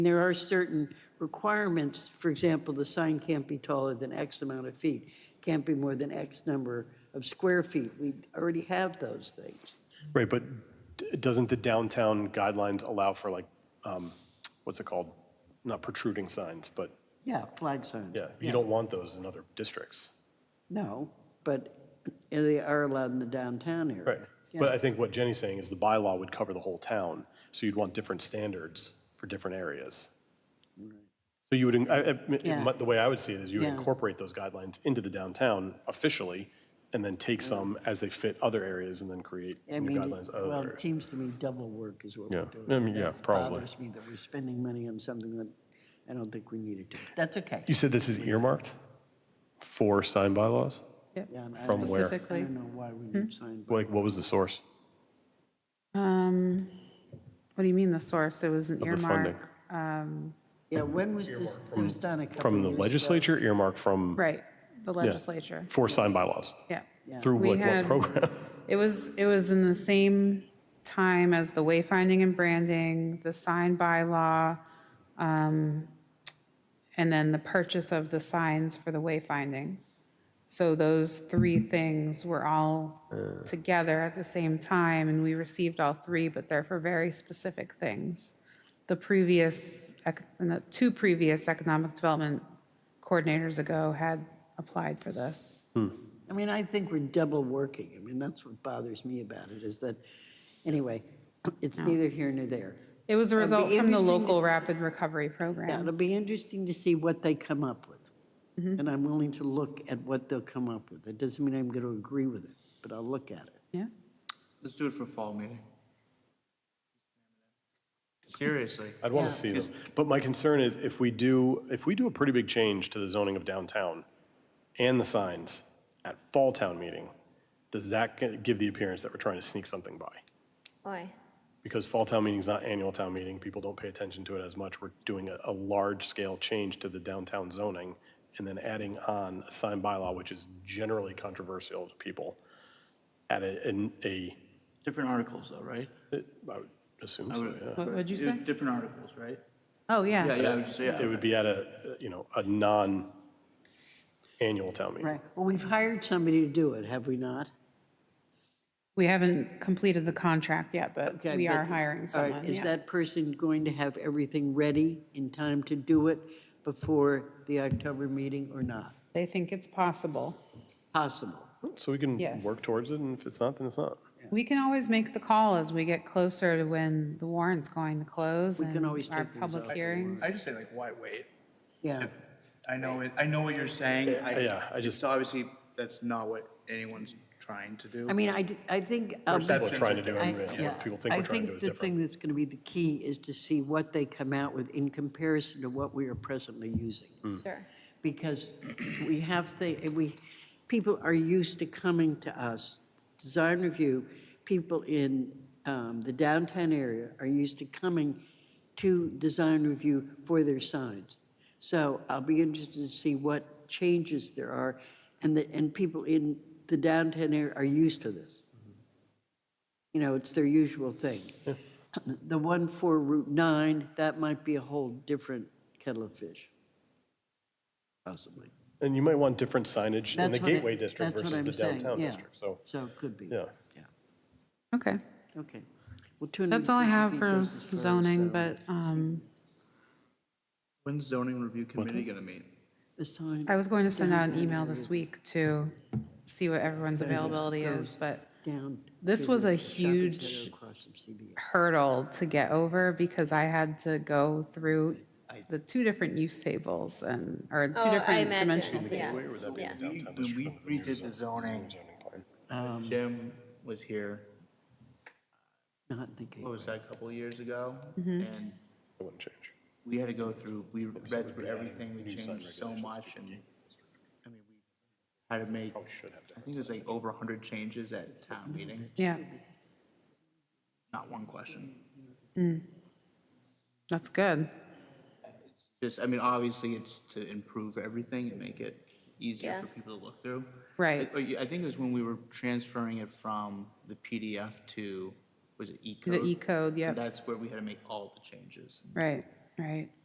There are certain requirements, for example, the sign can't be taller than X amount of feet, can't be more than X number of square feet. We already have those things. Right, but d- doesn't the downtown guidelines allow for like, um, what's it called? Not protruding signs, but Yeah, flag signs. yeah, you don't want those in other districts. No, but they are allowed in the downtown area. Right. But I think what Jenny's saying is the bylaw would cover the whole town, so you'd want different standards for different areas. So you would, in- I- I- Yeah. the way I would see it is you would Yeah. incorporate those guidelines into the downtown officially, and then take some as they fit other areas, and then create I new mean, guidelines. it- of other well, it areas. seems to me double work is what Yeah, we're doing. I mean, yeah, That probably. bothers me that we're spending money on something that I don't think we needed to. That's okay. You said this is earmarked for sign bylaws? Yeah, and I From don't- where? I Specifically, don't know why we need sign. Like, what was the source? um, what do you mean the source? It was an the funding. earmark. um, Yeah, when was this, it was done a couple From of the years ago. legislature, earmarked from, Right, the legislature, for sign bylaws? yeah. Through We like what had- program? It was, it was in the same time as the wayfinding and branding, the sign bylaw, um, and then the purchase of the signs for the wayfinding. So those three things were all together at the same time, and we received all three, but they're for very specific things. The previous, ec- and the two previous economic development coordinators ago had applied for this. I mean, I think we're double working. I mean, that's what bothers me about it, is that, anyway, it's neither here nor there. It was a It'd be result from the interesting to- local rapid recovery Yeah, program. it'll be interesting to see what they come up with. And I'm willing to look at what they'll come up with. That doesn't mean I'm going to agree with it, but I'll look at it. Yeah. Let's do it for fall meeting. Seriously. I'd want to see them. But my concern is if we do, if we do a pretty big change to the zoning of downtown and the signs at fall town meeting, does that g- give the appearance that we're trying to sneak something by? Why? Because fall town meeting is not annual town meeting, people don't pay attention to it as much. We're doing a, a large-scale change to the downtown zoning and then adding on a sign bylaw, which is generally controversial to people at a, in a, Different articles though, right? I would assume so, yeah. What would you say? Different articles, right? Oh, yeah. Yeah, yeah, I would say, It yeah. would be at a, you know, a non-annual town meeting. Right. Well, we've hired somebody to do it, have we not? We haven't completed the contract yet, but Okay, we but- are hiring all right, someone. Is yeah. that person going to have everything ready in time to do it before the October meeting or not? They think it's possible. Possible. So we can Yes. work towards it, and if it's not, then it's not. We can always make the call as we get closer to when the warrant's going to close We can and always our take things out of public the hearings. I just say like, why wait? Yeah. I know it, I know what you're saying. yeah, I it's just- Obviously, that's not what anyone's trying to do. I mean, I, d- I think. um, I'll be- What we're Perception. trying to do, I- and you know, yeah, what people think we're trying to do is I think different. the thing that's going to be the key is to see what they come out with in comparison to what we are presently using. Hmm. Sure. Because we have the, we, people are used to coming to us, design review, people in um, the downtown area are used to coming to design review for their signs. So I'll be interested to see what changes there are, and the, and people in the downtown area are used to this. You know, it's their usual thing. The one for Route 9, that might be a whole different kettle of fish, possibly. And you might want different signage in the That's what I- Gateway District that's what versus the I'm saying, downtown yeah. district, so, So it could be. yeah. Okay, Okay. Well, 250 that's all I have feet for goes as far as, zoning, uh, but um, When's zoning review committee gonna meet? The sign, I was going to send out an email this week to see what everyone's availability is, but down. this to was the a shopping center huge across from CBS. hurdle to get over because I had to go through the two different use tables and, or two Oh, I different dimensional imagine, tables. yeah. Yeah. We- When we redid the zoning, Um, Jim was here, Not in the gate. what was that, a couple of years ago? Mm-hmm. And It wouldn't change. we had to go through, we read through everything, we changed so much and, I mean, we had to make, I think it was like over hundred changes at town meeting, Yeah, not one question. that's good. Just, I mean, obviously it's to improve everything and make it easier Yeah. for people to look through. Right. I- I think it was when we were transferring it from the PDF to, was it E-code? uh, The E code, yep, That's where we had to make all the changes. right, right?